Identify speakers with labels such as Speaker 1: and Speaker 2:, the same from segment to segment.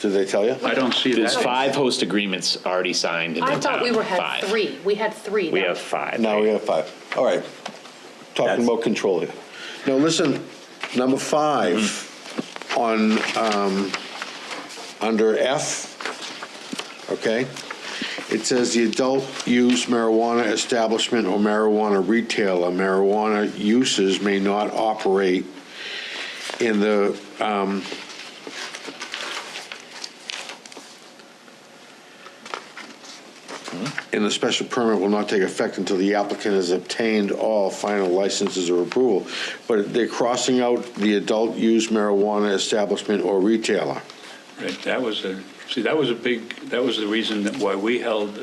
Speaker 1: Did they tell you?
Speaker 2: I don't see
Speaker 3: There's
Speaker 2: that.
Speaker 3: five host agreements already signed in the town.
Speaker 4: I thought we were, had
Speaker 3: Five.
Speaker 4: three, we had three.
Speaker 3: We
Speaker 4: that-
Speaker 3: have five.
Speaker 1: Now we have five. All right. Talking
Speaker 3: That's-
Speaker 1: about control here. Now, listen, number five on, um, under F, okay? It says the adult use marijuana establishment or marijuana retailer, marijuana uses may not operate in the, um, and the special permit will not take effect until the applicant has obtained all final licenses or approval. But they're crossing out the adult use marijuana establishment or retailer.
Speaker 2: Right, That was a, see, that was a big, that was the reason that why we held,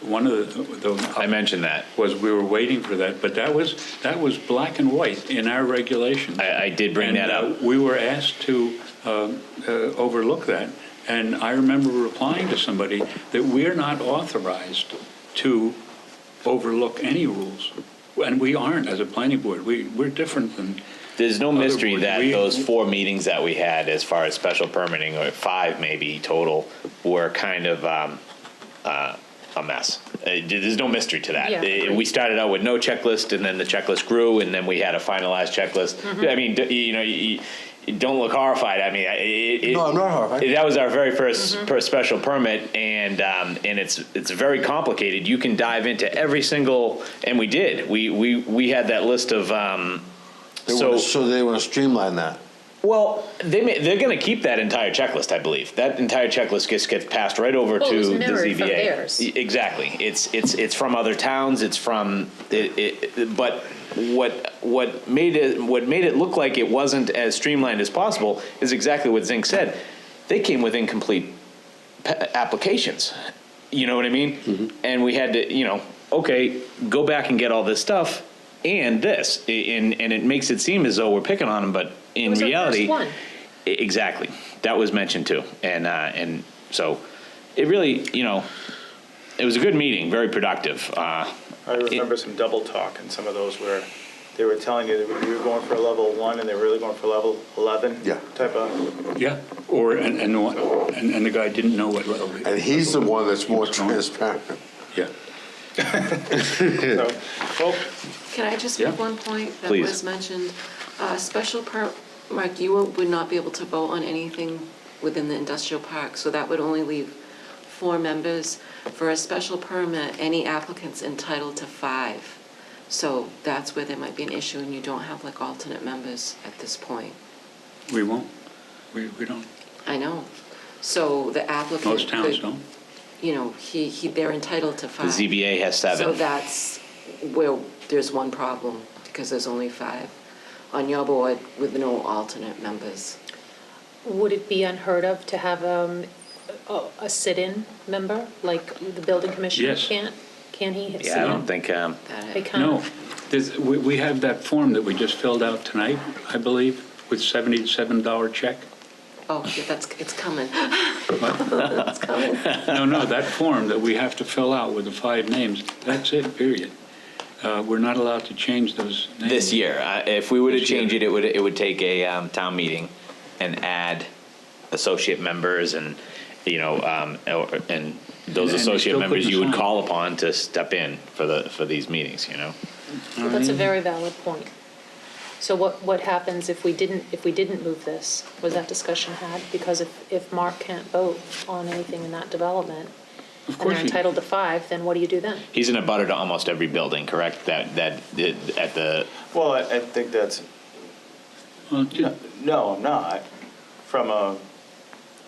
Speaker 2: one of the. the-
Speaker 3: I mentioned that.
Speaker 2: Was we were waiting for that, but that was, that was black and white in our regulations.
Speaker 3: I- I did bring
Speaker 2: And,
Speaker 3: that up.
Speaker 2: uh, We were asked to uh, uh, overlook that, and I remember replying to somebody that we're not authorized to overlook any rules, and we aren't as a planning board. We, we're different than,
Speaker 3: There's no
Speaker 2: Other
Speaker 3: mystery
Speaker 2: boards,
Speaker 3: that
Speaker 2: we-
Speaker 3: those four meetings that we had, as far as special permitting, or five maybe total, were kind of um, uh, a mess. Uh, There's no mystery to that.
Speaker 4: Yeah.
Speaker 3: Uh, We started out with no checklist, and then the checklist grew, and then we had a finalized checklist. I mean, d- you know, you, you don't look horrified. I mean, I- it, it,
Speaker 1: No, I'm not horrified.
Speaker 3: That was our very 1st per special permit, and um, and it's it's very complicated. You can dive into every single, and we did. We we we had that list of. Um,
Speaker 1: They
Speaker 3: so
Speaker 1: wanna- So they want to streamline that.
Speaker 3: well, they may, they're going to keep that entire checklist, I believe. That entire checklist gets gets passed right over
Speaker 4: Well, it
Speaker 3: to
Speaker 4: was
Speaker 3: the
Speaker 4: mirrored
Speaker 3: ZBA.
Speaker 4: from theirs.
Speaker 3: E- Exactly. It's it's it's from other towns. It's from it, it, it- but what what made it what made it look like it wasn't as streamlined as possible is exactly what Zink said. They came with incomplete pa- applications. You know what I mean? And we had to, you know, okay, go back and get all this stuff and this, I- and and it makes it seem as though we're picking on them, but in
Speaker 4: was our first
Speaker 3: reality,
Speaker 4: one.
Speaker 3: I- exactly, that was mentioned too, and uh, and so it really, you know, it was a good meeting, very productive. Uh,
Speaker 5: I remember some double talk in some of those where they were telling you that you were going for a level one and they were really going for level 11
Speaker 1: Yeah.
Speaker 5: type of,
Speaker 2: yeah, or, and, and what- and and the guy didn't know what level.
Speaker 1: And he's the one that's more transparent.
Speaker 2: Yeah.
Speaker 5: so, oh, well,
Speaker 6: Can I just
Speaker 2: Yeah.
Speaker 6: make one point that
Speaker 3: Please.
Speaker 6: was mentioned? Uh, Special per, Mark, you won't- would not be able to vote on anything within the industrial park, so that would only leave four members. For a special permit, any applicant's entitled to five. So that's where there might be an issue, and you don't have like alternate members at this point.
Speaker 2: We won't. We, we don't.
Speaker 6: I know. So the applicant.
Speaker 2: Most towns
Speaker 6: could-
Speaker 2: don't.
Speaker 6: You know, he, he, they're entitled to
Speaker 3: the
Speaker 6: five.
Speaker 3: ZBA has seven.
Speaker 6: So that's where there's one problem, because there's only five on your board with no alternate members.
Speaker 4: Would it be unheard of to have um, a a sit-in member, like the building commissioner
Speaker 2: Yes.
Speaker 4: can't? Can he sit in?
Speaker 3: yeah, I don't think. Um,
Speaker 6: That
Speaker 4: They
Speaker 6: I-
Speaker 4: can't.
Speaker 2: No, there's, we, we have that form that we just filled out tonight, I believe, with seventy-seven dollar check.
Speaker 6: Oh, yeah, that's, it's coming. It's coming.
Speaker 2: No, no, that form that we have to fill out with the five names, that's it, period. Uh, we're not allowed to change those names.
Speaker 3: this year. Uh, If we were to
Speaker 2: This year.
Speaker 3: change it, it would, it would take a um, town meeting and add associate members and, you know, um, or- and
Speaker 2: And-
Speaker 3: those
Speaker 2: and they
Speaker 3: associate
Speaker 2: still
Speaker 3: members
Speaker 2: couldn't
Speaker 3: you would
Speaker 2: assign.
Speaker 3: call upon to step in for the, for these meetings, you know?
Speaker 4: Well, That's a very valid point. So what, what happens if we didn't, if we didn't move this? Was that discussion had? Because if, if Mark can't vote on anything in that development,
Speaker 2: Of
Speaker 4: and
Speaker 2: course
Speaker 4: they're
Speaker 2: you-
Speaker 4: entitled to five, then what do you do then?
Speaker 3: He's in a butter to almost every building, correct? That, that, that- at the,
Speaker 5: well, I I think that's,
Speaker 2: Well, ju-
Speaker 5: no, I'm not, from a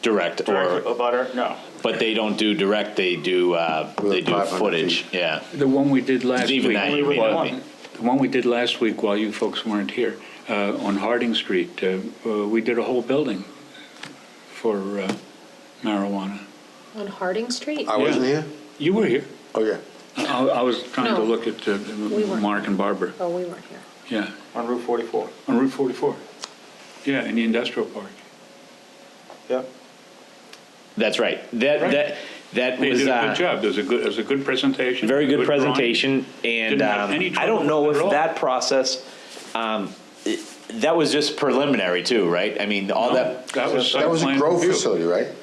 Speaker 3: direct
Speaker 5: direct
Speaker 3: or,
Speaker 5: abutter, no.
Speaker 3: but they don't do direct, they do, uh, they do
Speaker 1: 500 feet.
Speaker 3: footage, yeah.
Speaker 2: The one we did last week.
Speaker 3: Even that you may not be.
Speaker 2: The one we did last week while you folks weren't here, uh, on Harding Street, uh, uh, we did a whole building for uh, marijuana.
Speaker 4: On Harding Street?
Speaker 1: I wasn't here?
Speaker 2: You were here.
Speaker 1: Oh, yeah.
Speaker 2: I, I was trying to
Speaker 4: No.
Speaker 2: look at uh,
Speaker 4: weren't.
Speaker 2: Mark and Barbara,
Speaker 4: Oh, we weren't here.
Speaker 2: yeah,
Speaker 5: On Route 44,
Speaker 2: on Route 44. Yeah, in the industrial park.
Speaker 5: yep.
Speaker 3: That's right. That,
Speaker 2: Right.
Speaker 3: that, that
Speaker 2: They
Speaker 3: was.
Speaker 2: did a
Speaker 3: uh,
Speaker 2: good job, there was a good, there was a good presentation.
Speaker 3: Very good
Speaker 2: drawing.
Speaker 3: presentation, and
Speaker 2: Didn't have
Speaker 3: um,
Speaker 2: any
Speaker 3: I don't
Speaker 2: trouble
Speaker 3: know
Speaker 2: with it at
Speaker 3: if
Speaker 2: all.
Speaker 3: that process, um, it- that was just preliminary too, right? I mean, all
Speaker 2: No,
Speaker 3: that,
Speaker 2: That was
Speaker 1: That
Speaker 2: site
Speaker 1: was a
Speaker 2: plan
Speaker 1: grow
Speaker 2: review.
Speaker 1: facility, right?